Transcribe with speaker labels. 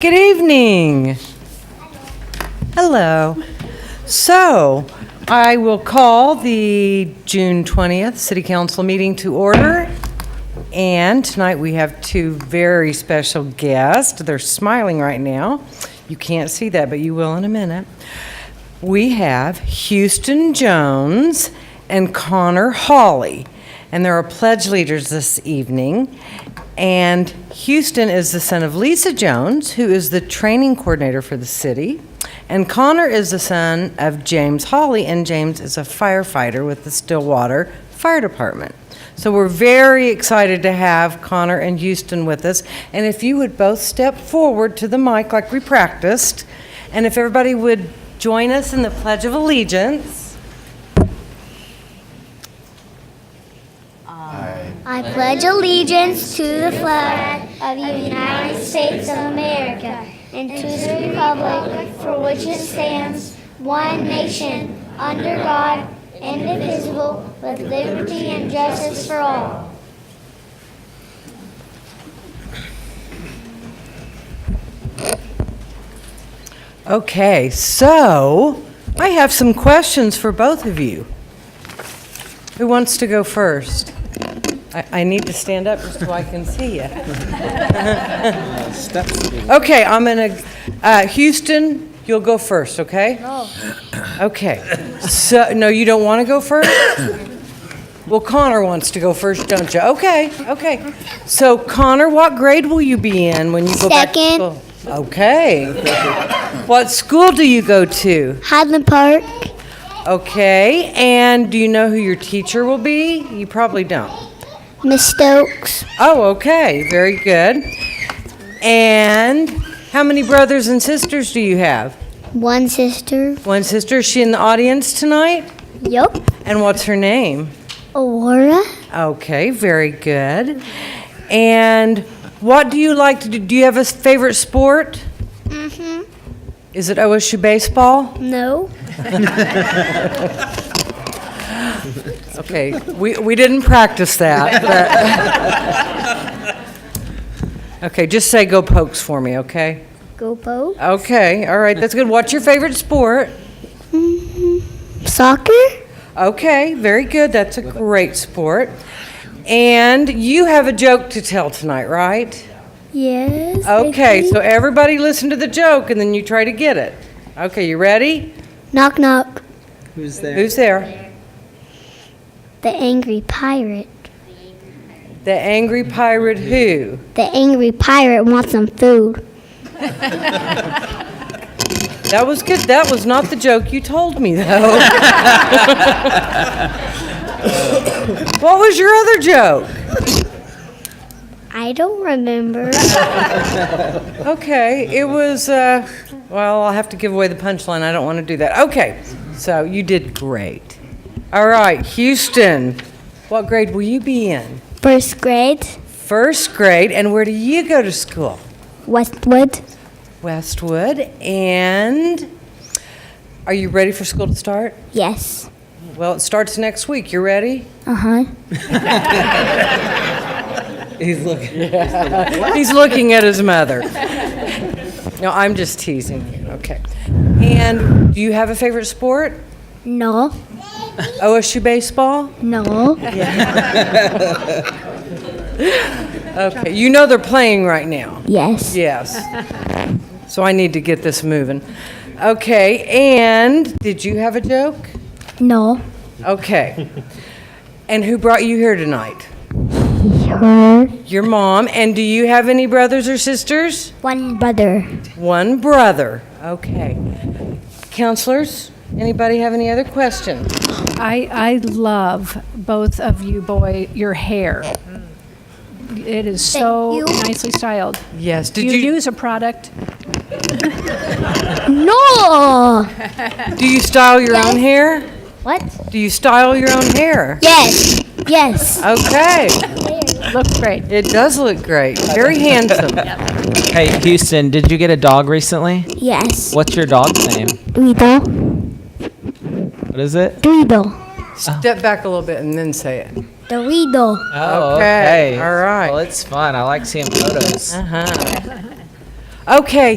Speaker 1: Good evening. Hello. So, I will call the June 20th City Council meeting to order. And tonight we have two very special guests. They're smiling right now. You can't see that, but you will in a minute. We have Houston Jones and Connor Hawley. And there are pledge leaders this evening. And Houston is the son of Lisa Jones, who is the training coordinator for the city. And Connor is the son of James Hawley, and James is a firefighter with the Stillwater Fire Department. So we're very excited to have Connor and Houston with us. And if you would both step forward to the mic like we practiced, and if everybody would join us in the Pledge of Allegiance.
Speaker 2: I pledge allegiance to the flag of the United States of America and to the republic for which it stands, one nation, under God, indivisible, with liberty and justice for all.
Speaker 1: Okay, so I have some questions for both of you. Who wants to go first? I, I need to stand up just so I can see you. Okay, I'm gonna, uh, Houston, you'll go first, okay? No. Okay, so, no, you don't want to go first? Well, Connor wants to go first, don't you? Okay, okay. So Connor, what grade will you be in when you go back to
Speaker 2: Second.
Speaker 1: school? Okay. What school do you go to?
Speaker 2: Highland Park,
Speaker 1: Okay, and do you know who your teacher will be? You probably don't.
Speaker 2: Miss Stokes,
Speaker 1: Oh, okay, very good. And how many brothers and sisters do you have?
Speaker 2: one sister.
Speaker 1: One sister, is she in the audience tonight?
Speaker 2: Yup.
Speaker 1: And what's her name?
Speaker 2: Aurora,
Speaker 1: Okay, very good. And what do you like to do? Do you have a favorite sport?
Speaker 2: Mm-hmm.
Speaker 1: Is it OSU baseball?
Speaker 2: No.
Speaker 1: Okay, we, we didn't practice that, but. Okay, just say go pokes for me, okay?
Speaker 2: Go Bo.
Speaker 1: Okay, all right, that's good. What's your favorite sport?
Speaker 2: Soccer?
Speaker 1: Okay, very good. That's a great sport. And you have a joke to tell tonight, right?
Speaker 2: Yes.
Speaker 1: Okay, so everybody listen to the joke and then you try to get it. Okay, you ready?
Speaker 2: Knock knock.
Speaker 3: Who's there?
Speaker 1: Who's there?
Speaker 2: The angry pirate.
Speaker 1: The angry pirate who?
Speaker 2: The angry pirate wants some food.
Speaker 1: That was good. That was not the joke you told me, though. what was your other joke?
Speaker 2: I don't remember.
Speaker 1: Okay, it was, uh, well, I'll have to give away the punchline. I don't want to do that. Okay, so you did great. All right, Houston, what grade will you be in?
Speaker 2: First grade,
Speaker 1: First grade, and where do you go to school?
Speaker 2: Westwood.
Speaker 1: Westwood, and are you ready for school to start?
Speaker 2: Yes.
Speaker 1: Well, it starts next week. You ready?
Speaker 2: Uh huh.
Speaker 3: He's looking.
Speaker 1: He's looking at his mother. No, I'm just teasing you. Okay. And do you have a favorite sport?
Speaker 2: No.
Speaker 1: OSU baseball?
Speaker 2: No.
Speaker 1: Okay. You know they're playing right now.
Speaker 2: Yes.
Speaker 1: Yes. So I need to get this moving. Okay. And did you have a joke?
Speaker 2: No.
Speaker 1: Okay. And who brought you here tonight?
Speaker 2: Her.
Speaker 1: Your mom. And do you have any brothers or sisters?
Speaker 2: One brother.
Speaker 1: One brother. Okay. Counselors, anybody have any other questions?
Speaker 4: I, I love both of you boy, your hair. It is so
Speaker 2: Mm. Thank you.
Speaker 4: nicely styled.
Speaker 1: Yes.
Speaker 4: Do
Speaker 1: Did
Speaker 4: you
Speaker 1: you,
Speaker 4: use a product?
Speaker 2: No.
Speaker 1: do you style your own hair?
Speaker 2: What?
Speaker 1: Do you style your own hair?
Speaker 2: Yes. Yes.
Speaker 1: Okay.
Speaker 4: Looks great.
Speaker 1: It does look great. Very handsome.
Speaker 5: Hey, Houston, did you get a dog recently?
Speaker 2: Yes.
Speaker 5: What's your dog's name?
Speaker 2: Dweedle.
Speaker 5: What is it?
Speaker 2: Dweedle.
Speaker 1: Step back a little bit and then say it.
Speaker 2: Dweedle.
Speaker 5: Oh,
Speaker 1: Okay, all right.
Speaker 5: Well, it's fun. I like seeing photos.
Speaker 1: Uh-huh. Okay,